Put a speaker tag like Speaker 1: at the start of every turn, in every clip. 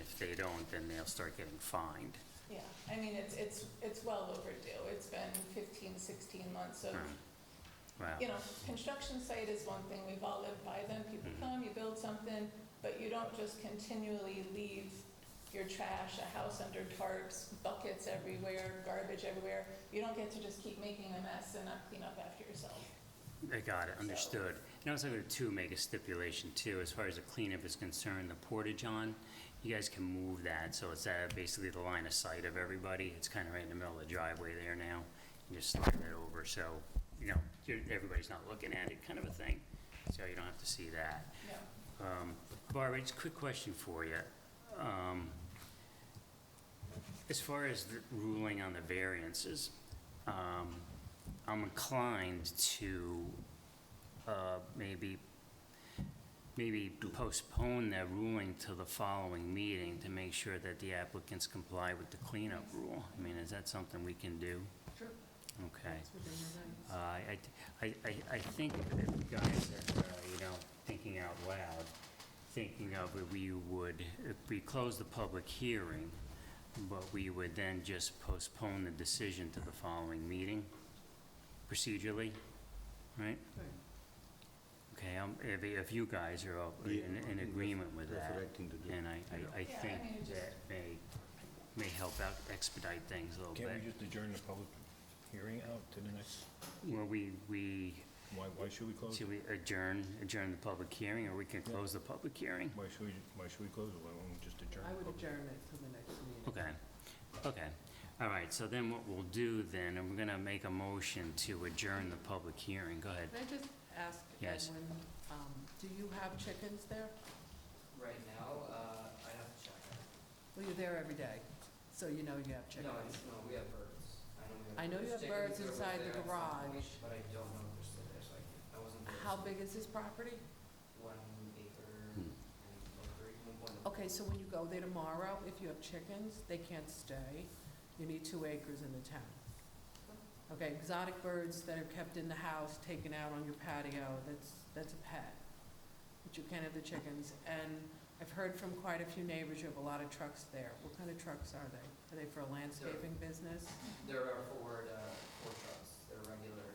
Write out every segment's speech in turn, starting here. Speaker 1: if they don't, then they'll start getting fined.
Speaker 2: Yeah, I mean, it's, it's, it's well overdue. It's been 15, 16 months of,
Speaker 1: Right. Wow.
Speaker 2: you know, construction site is one thing, we've all lived by them. People
Speaker 1: Mhm.
Speaker 2: come, you build something, but you don't just continually leave your trash, a house under tarps, buckets everywhere, garbage everywhere. You don't get to just keep making a mess and not clean up after yourself.
Speaker 1: I got it, understood. And I was going to make a stipulation too, as far as the cleanup is concerned, the portage on, you guys can move that, so it's at basically the line of sight of everybody. It's kind of right in the middle of the driveway there now. You just slide it over, so, you know, you're- everybody's not looking at it, kind of a thing. So you don't have to see that.
Speaker 2: No.
Speaker 1: Um, Barbara, just a quick question for you. Um, As far as the ruling on the variances, um, I'm inclined to uh, maybe, maybe postpone that ruling to the following meeting to make sure that the applicants comply with the cleanup rule. I mean, is that something we can do?
Speaker 2: Sure.
Speaker 1: Okay. Uh, I, I, I- I think, that guys, uh, you know, thinking out loud, thinking of it, we would, if we close the public hearing, but we would then just postpone the decision to the following meeting procedurally, right? Okay, um, if, if you guys are all in, in agreement with that.
Speaker 3: That's the right thing to do.
Speaker 1: And I, I, I
Speaker 2: Yeah, I
Speaker 1: think
Speaker 2: mean, it just-
Speaker 1: that may, may help out expedite things a little
Speaker 4: Can't we
Speaker 1: bit.
Speaker 4: just adjourn the public hearing out to the next,
Speaker 1: Well, we, we
Speaker 4: why, why should we close?
Speaker 1: Should we adjourn, adjourn the public hearing, or we can close the public hearing?
Speaker 4: Why should we, why should we close it? Why won't we just adjourn?
Speaker 5: I
Speaker 4: the
Speaker 5: would
Speaker 4: public-
Speaker 5: adjourn it till the next meeting.
Speaker 1: Okay, okay. All right, so then what we'll do then, and we're gonna make a motion to adjourn the public hearing. Go ahead.
Speaker 5: Can I just ask,
Speaker 1: Yes.
Speaker 5: Edwin, um, do you have chickens there?
Speaker 6: Right now, uh, I have to check.
Speaker 5: Well, you're there every day, so you know you have chickens.
Speaker 6: No, it's, no, we have birds. I
Speaker 5: I know you
Speaker 6: know we have
Speaker 5: have birds
Speaker 6: birds. Jacob Hooper was
Speaker 5: inside the
Speaker 6: there at some
Speaker 5: garage.
Speaker 6: point, But I don't know if they're still there, so I can't, I wasn't there.
Speaker 5: How
Speaker 6: so
Speaker 5: big is this property?
Speaker 6: One acre
Speaker 1: Hmm.
Speaker 6: and one three, one point.
Speaker 5: Okay, so when you go there tomorrow, if you have chickens, they can't stay. You need two acres in the town. Okay, exotic birds that are kept in the house, taken out on your patio, that's, that's a pet. But you can't have the chickens. And I've heard from quite a few neighbors, you have a lot of trucks there. What kind of trucks are they? Are they for a landscaping business?
Speaker 6: There are Ford, uh, Ford trucks, they're regular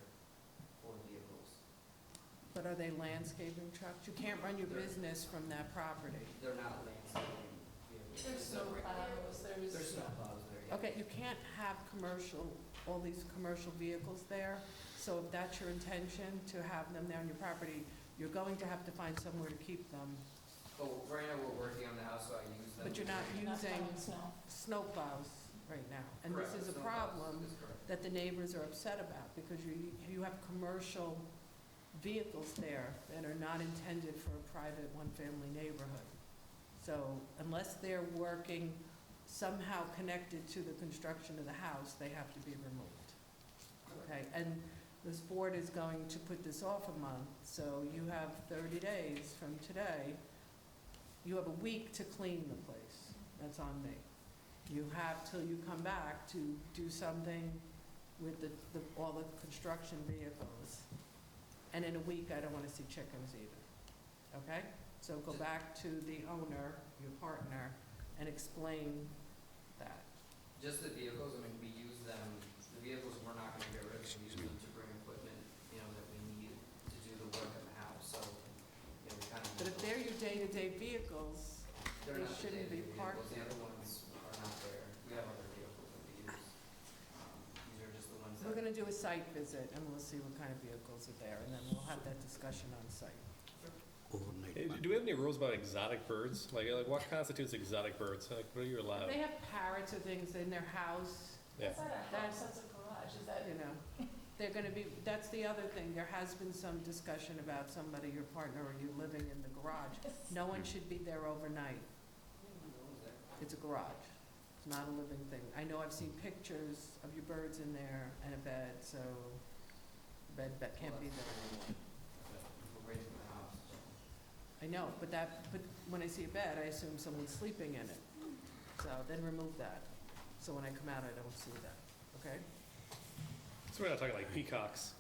Speaker 6: Ford vehicles.
Speaker 5: But are they landscaping trucks? You can't run your business from that property.
Speaker 6: They're not landscaping vehicles.
Speaker 2: There's no
Speaker 6: They're-
Speaker 2: plows, there's.
Speaker 6: There's snow plows there, yeah.
Speaker 5: Okay, you can't have commercial, all these commercial vehicles there, so if that's your intention, to have them there on your property, you're going to have to find somewhere to keep them,
Speaker 6: But right now, we're working on the house, so I use them.
Speaker 5: but you're not
Speaker 2: Not
Speaker 5: using
Speaker 2: plowing snow.
Speaker 5: snowplows right now. And
Speaker 6: Correct,
Speaker 5: this is a
Speaker 6: snow plows,
Speaker 5: problem
Speaker 6: that's correct.
Speaker 5: that the neighbors are upset about, because you, you have commercial vehicles there that are not intended for a private, one-family neighborhood. So unless they're working somehow connected to the construction of the house, they have to be removed. Okay, and this board is going to put this off a month, so you have 30 days from today. You have a week to clean the place. That's on me. You have till you come back to do something with the, the- all the construction vehicles. And in a week, I don't want to see chickens either, okay? So go back to the owner, your partner, and explain that.
Speaker 6: Just the vehicles, I mean, we use them, the vehicles, we're not gonna get rid of, we use them to bring equipment, you know, that we need to do the work in the house, so, you know, we kind of.
Speaker 5: But if they're your day-to-day vehicles,
Speaker 6: They're
Speaker 5: they
Speaker 6: not the
Speaker 5: shouldn't be
Speaker 6: day-to-day
Speaker 5: parked
Speaker 6: vehicles. The other ones are not there, we have other vehicles that we use. Um, These are just the ones
Speaker 5: Ah.
Speaker 6: that.
Speaker 5: We're gonna do a site visit, and we'll see what kind of vehicles are there, and then we'll have that discussion on site.
Speaker 7: Hey, Do do we have any rules about exotic birds? Like, like what constitutes exotic birds? Like, what are you allowed?
Speaker 5: They have parrots or things in their house,
Speaker 7: Yeah.
Speaker 2: That's not a house, that's a garage, is that?
Speaker 5: you know, they're gonna be, that's the other thing, there has been some discussion about somebody, your partner, or you living in the garage. No one should be there overnight, it's a garage, it's not a living thing. I know I've seen pictures of your birds in there and a bed, so, bed, that can't be there.
Speaker 6: We're raising the house, so.
Speaker 5: I know, but that, but when I see a bed, I assume someone's sleeping in it. So then remove that, so when I come out, I don't see that, okay?
Speaker 7: So we're not talking like peacocks,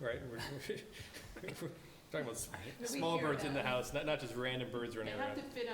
Speaker 7: right? We're, we're- we're talking about s-
Speaker 1: I-
Speaker 7: small birds in the house, not, not just random birds running
Speaker 5: They
Speaker 7: around.
Speaker 5: have to fit